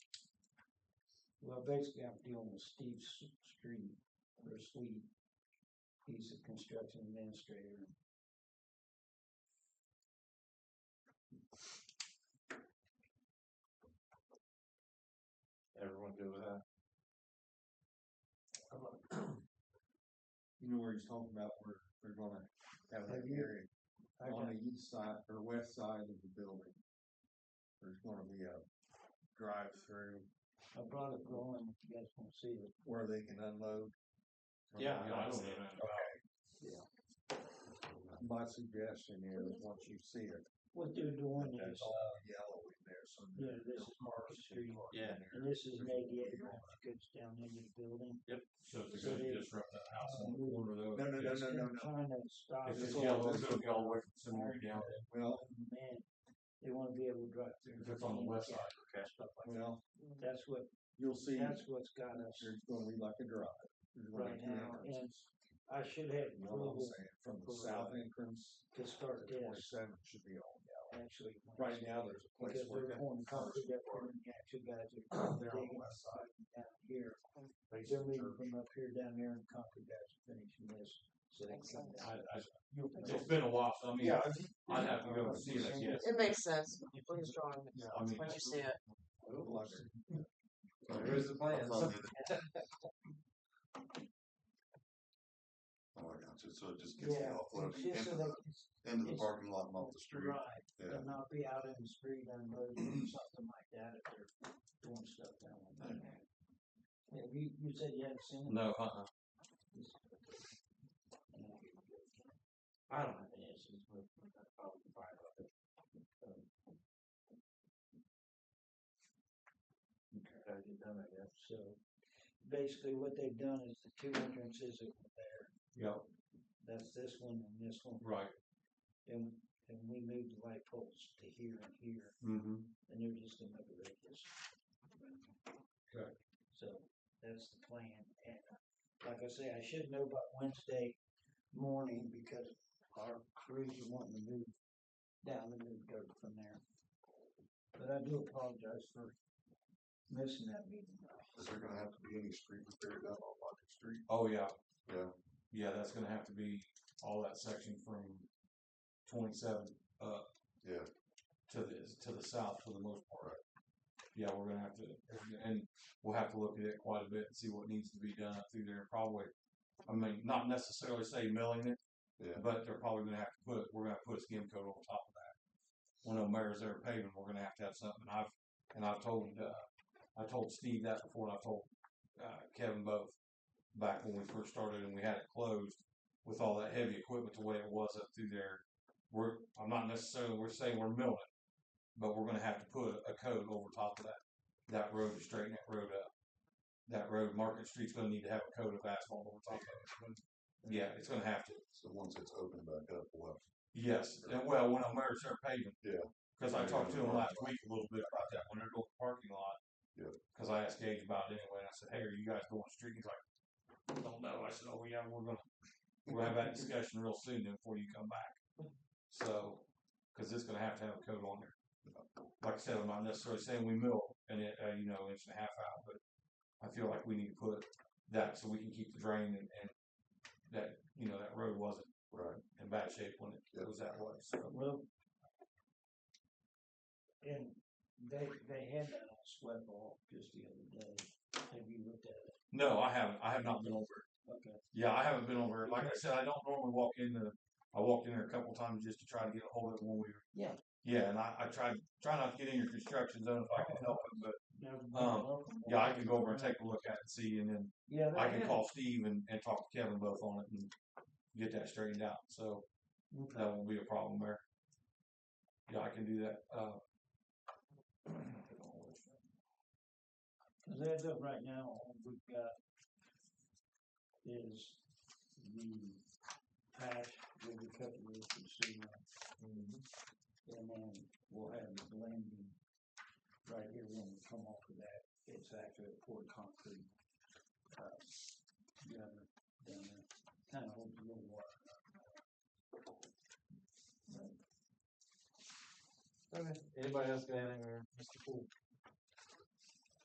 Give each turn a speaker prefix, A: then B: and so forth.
A: Well, basically, I'm dealing with Steve S- Street, or Sweet. He's a construction administrator.
B: Everyone good with that?
C: You know where he's talking about where they're gonna
A: Have
C: have that
A: you-
C: area
A: I
C: on
A: got-
C: the east side or west side of the building. There's gonna be a drive-through
A: I brought it going, if you guys want to see it.
C: where they can unload.
B: no, I see
C: Okay.
B: that.
C: My suggestion is, once you see it,
A: What they're doing
C: that's
A: is,
C: all yellow in there, so.
A: yeah, this is Market Street,
B: Yeah.
A: and this is maybe it goes down into the building.
B: So if
A: So
B: they're
A: they-
B: gonna disrupt that house,
A: Uh,
B: I'm one of those.
C: No, no, no, no, no,
A: They're
C: no.
A: Trying to stop.
B: If
A: it.
B: it's
C: no.
B: yellow, it's gonna go away from somewhere down,
C: Well,
A: Man, they wanna be able to drive through.
B: if it's on the west side, okay.
A: Stuff like that.
C: well,
A: That's what,
C: you'll see,
A: that's what's got us
C: there's gonna be like a drive. There's gonna be
A: right
C: two
A: now, and
C: entrances.
A: I should have
C: You know what I'm
A: approval
C: saying? From the
A: approval.
C: south entrance
A: to
C: to
A: start
C: the
A: this,
C: twenty-seventh should be all yellow.
A: actually.
C: Right now, there's a place
A: Because
C: where
A: they're
C: that
A: going to cover
C: first
A: that
C: part,
A: one, yeah, two guys
C: they're
A: are
C: on the
A: digging
C: west side,
A: down here.
C: facing
A: They're leaving
C: church.
A: from up here down there and concrete guys are finishing this, so they can come
B: I,
A: down.
B: I, it's been a while, so I mean, I'd have to go and see it, I guess.
D: It makes sense. Please draw it.
C: Yeah,
B: I mean,
D: Once you see it.
C: Here's the plan.
E: Oh, I got you. So it just gets
A: Yeah,
E: you
A: and
E: offloaded
A: just
E: into
A: so they
E: the,
A: can
E: into the
A: it's-
E: parking lot and off the street.
A: Right,
E: Yeah.
A: and not be out in the street unloading or something like that if they're doing stuff down like that. Yeah, you, you said you hadn't seen it?
B: No, uh-uh.
A: I don't have any issues with, I'll be fine with it.
B: Okay, you done, I guess.
A: So, basically what they've done is the two entrances that were there,
B: Yeah,
A: that's this one and this one.
B: right.
A: And, and we moved the light poles to here and here,
B: Mm-hmm.
A: and they're just gonna make a radius.
B: Okay.
A: So, that's the plan, and like I say, I should know by Wednesday morning, because our crews are wanting to move down and move dirt from there. But I do apologize for missing that meeting.
E: Is there gonna have to be any street repair done on Market Street?
B: Oh, yeah,
E: Yeah.
B: yeah, that's gonna have to be all that section from twenty-seven up
E: Yeah,
B: to the, to the south for the most part. Yeah, we're gonna have to, and we'll have to look at it quite a bit and see what needs to be done up through there, probably. I mean, not necessarily say milling it,
E: yeah.
B: but they're probably gonna have to put, we're gonna have to put a skim coat on top of that. When the mayor's there paving, we're gonna have to have something, I've, and I've told, uh, I told Steve that before, and I told, uh, Kevin both. Back when we first started and we had it closed, with all that heavy equipment, the way it was up through there, we're, I'm not necessarily, we're saying we're milling it. But we're gonna have to put a coat over top of that, that road to straighten that road up. That road, Market Street's gonna need to have a coat of asphalt over top of it. Yeah, it's gonna have to.
E: So once it's opened back up, we'll have,
B: Yes, and well, when I'm there, start paving.
E: Yeah.
B: Cause I talked to him last week a little bit about that, when they're doing the parking lot.
E: Yeah.
B: Cause I asked Gage about it anyway, and I said, hey, are you guys going street? He's like, don't know, I said, oh, yeah, we're gonna, we're gonna have that discussion real soon then before you come back. So, cause it's gonna have to have a coat on there. Like I said, I'm not necessarily saying we mill and it, uh, you know, inch and a half out, but I feel like we need to put that so we can keep the drain and, and that, you know, that road wasn't
E: right.
B: in bad shape when it goes that way. So
A: Well. And they, they had that on sweat ball just the other day, have you looked at it?
B: no, I haven't. I have not been over. it.
A: Okay.
B: Yeah, I haven't been over. it. Like I said, I don't normally walk in the. I walked in there a couple times just to try to get a hold of it when we were.
A: Yeah.
B: Yeah, and I, I try try not to get in your construction zone if I can help it, but
A: Now,
B: Um, yeah, I can go over and take a look at it and see, and then
A: Yeah.
B: I
A: they
B: can
A: had-
B: call Steve and, and talk to Kevin both on it and get that straightened out. So
A: Okay.
B: that won't be a problem there. Yeah, I can do that. Uh,
A: 'Cause as of right now, all we've got is the patch with the cut roof and cement.
B: Mm-hmm.
A: And then we'll have the blending right here when we come off of that. It's actually poured concrete. uh, Together down there, kind of holds a little water.
D: Okay.
F: Anybody else got anything there?
A: Mr. Poole.